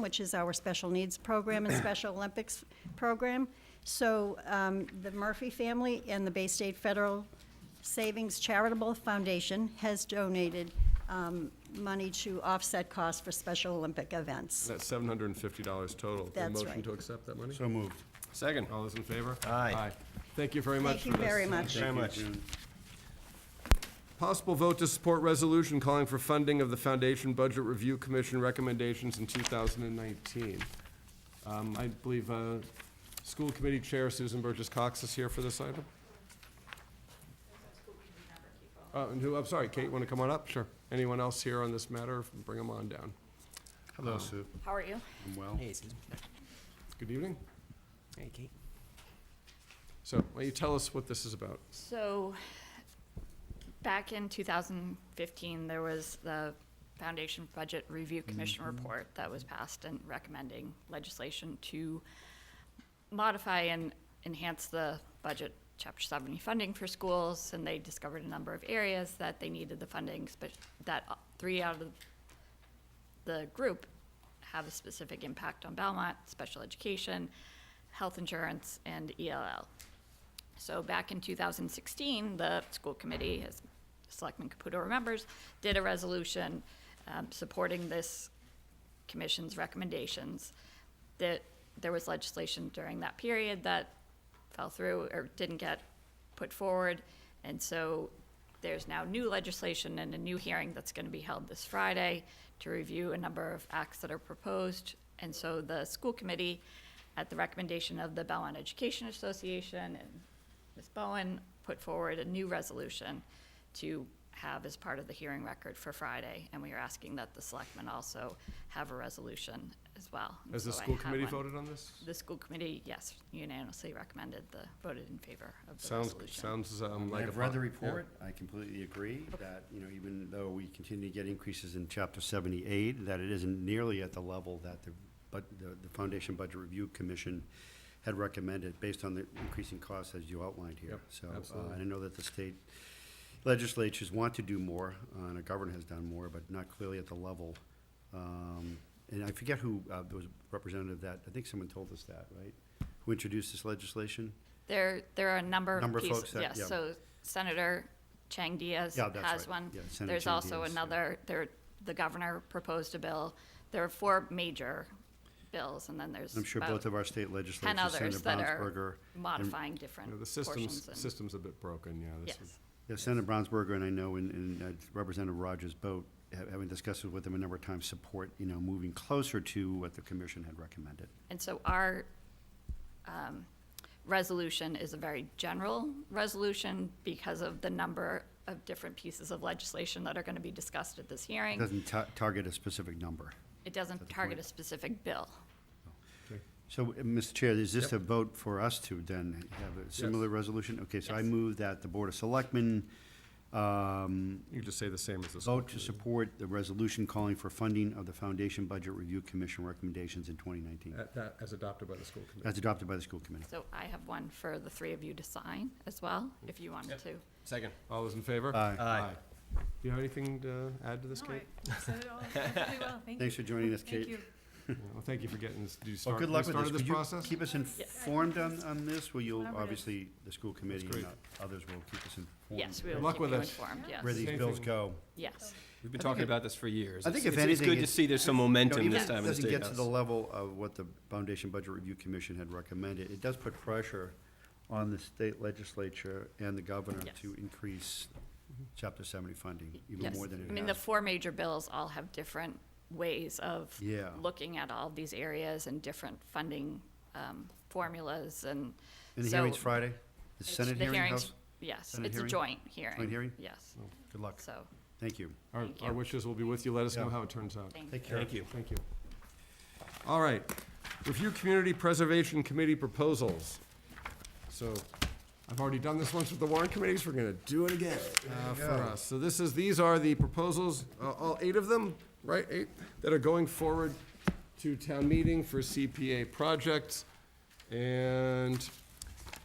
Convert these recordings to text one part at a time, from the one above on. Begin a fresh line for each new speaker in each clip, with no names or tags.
which is our special needs program and Special Olympics program. So um, the Murphy family and the Bay State Federal Savings Charitable Foundation has donated um, money to offset costs for Special Olympic events.
That's seven hundred and fifty dollars total. The
That's
Motion
right.
to accept that money?
So moved.
Second, all those in favor?
Aye.
Thank you very
Thank
much for
you
this.
very much.
Very much.
Possible vote to support resolution calling for funding of the Foundation Budget Review Commission recommendations in two thousand and nineteen. Um, I believe, uh, School Committee Chair Susan Burgess Cox is here for this item. Uh, and who, I'm sorry, Kate, wanna come on up? Sure. Anyone else here on this matter? Bring them on down.
Hello, Sue.
How are you?
I'm well.
Hey, Susan.
Good evening.
Hey, Kate.
So, why don't you tell us what this is about?
So, back in 2015, there was the Foundation Budget Review Commission report that was passed and recommending legislation to modify and enhance the budget Chapter 70 funding for schools, and they discovered a number of areas that they needed the funding, but that uh, three out of the group have a specific impact on Belmont, special education, health insurance, and E ELL. So back in 2016, the school committee, as Selectman Caputo remembers, did a resolution um, supporting this commission's recommendations. That there was legislation during that period that fell through or didn't get put forward. And so there's now new legislation and a new hearing that's going to be held this Friday to review a number of acts that are proposed. And so the school committee, at the recommendation of the Belmont Education Association and Ms. Bowen, put forward a new resolution to have as part of the hearing record for Friday. And we are asking that the selectmen also have a resolution as well. And
Has the
so I
school
have
committee
one.
voted on this?
The school committee, yes, unanimously recommended the, voted in favor of the
Sounds,
resolution.
sounds um, like a.
I've read
po-
the
yeah.
report. I completely agree that, you know, even though we continue to get increases in chapter seventy-eight, that it isn't nearly at the level that the, but, the, the Foundation Budget Review Commission had recommended based on the increasing costs as you outlined here.
Yep,
So, uh,
absolutely.
and I know that the state legislatures want to do more, uh, and our governor has done more, but not clearly at the level. Um, and I forget who, uh, there was a representative that, I think someone told us that, right? Who introduced this legislation?
There, there are a number
Number
of
of folks
pieces,
that-
yes,
yeah.
so Senator Chang Diaz
Yeah, that's
has
right.
one.
Yeah, Senator
There's
Chang
also
Diaz, yeah.
another, there, the governor proposed a bill. There are four major bills, and then there's
I'm sure
about
both of our state
ten
legislatures, Senator
others that
Brownsberger.
are
and-
modifying
Yeah,
different
The
portions.
system's,
and-
system's a bit broken, yeah. this
Yes,
would-
Yeah, Senator Brownsberger and I know, and- and uh, Representative Rogers Boat, ha- having discussed it with them a number of times, support, you know, moving closer to what the commission had recommended.
and so our um, resolution is a very general resolution because of the number of different pieces of legislation that are going to be discussed at this
It
hearing.
Doesn't ta- target a specific number.
It doesn't
the
target a
point.
specific bill.
So, uh, Mr. Chair, is this a vote for us to then have a similar resolution? Okay, so I
Yes.
move that the Board of Selectmen um,
You could just say the same as the school.
vote to support the resolution calling for funding of the Foundation Budget Review Commission recommendations in 2019,
At that- As adopted by the school committee.
as adopted by the school committee.
So I have one for the three of you to sign as well, if you wanted to.
Second.
All those in favor?
Aye.
Aye.
Do you have anything to add to this,
No,
Kate?
I said it all perfectly well, thank you.
Thanks for joining us, Kate.
Thank you.
Yeah, Well, thank you for getting this, do you
Well,
start,
good
you
luck with this.
started this
Could you
process?
Keep us informed on, on this, Well, you'll,
Collaborative.
obviously, the school committee and
great.
o- others will keep us informed.
Yes, we
Good
will
luck
keep
with
you
us.
informed,
Where
yes,
these bills go.
yes.
We've been talking about this for years.
I think
It's-
if
it's- It's
anything,
good to
it's-
see there's some
You know,
momentum
even
this
if it
time in the
Doesn't
State
get to the
House.
level of what the Foundation Budget Review Commission had recommended. It does put pressure on the state legislature and the governor
Yes.
to increase chapter seventy funding even
Yes.
more than
I mean,
it
the
has.
four major bills all have different ways of
Yeah.
looking at all of these areas and different funding um, formulas and
And the
so
hearing's Friday? The
it's-
Senate
the
hearing,
hearings-
House?
Yes,
Senate
it's a
hearing?
joint hearing.
Joint hearing? Oh,
Yes,
Good luck.
so,
Thank you.
Our,
Thank
our
you.
wishes will be with you, let us know
Yeah.
how it turns out.
thank you.
Take care.
Thank you.
Thank you. All right, review Community Preservation Committee proposals. So, I've already done this once with the warrant committees, we're gonna do it again uh, for us. So this is, these are the proposals, uh, all eight of them, right, eight, that are going forward to town meeting for CPA projects. And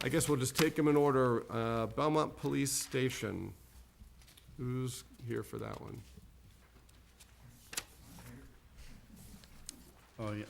I guess we'll just take them in order. Uh, Belmont Police Station, who's here for that one?
Oh, yeah,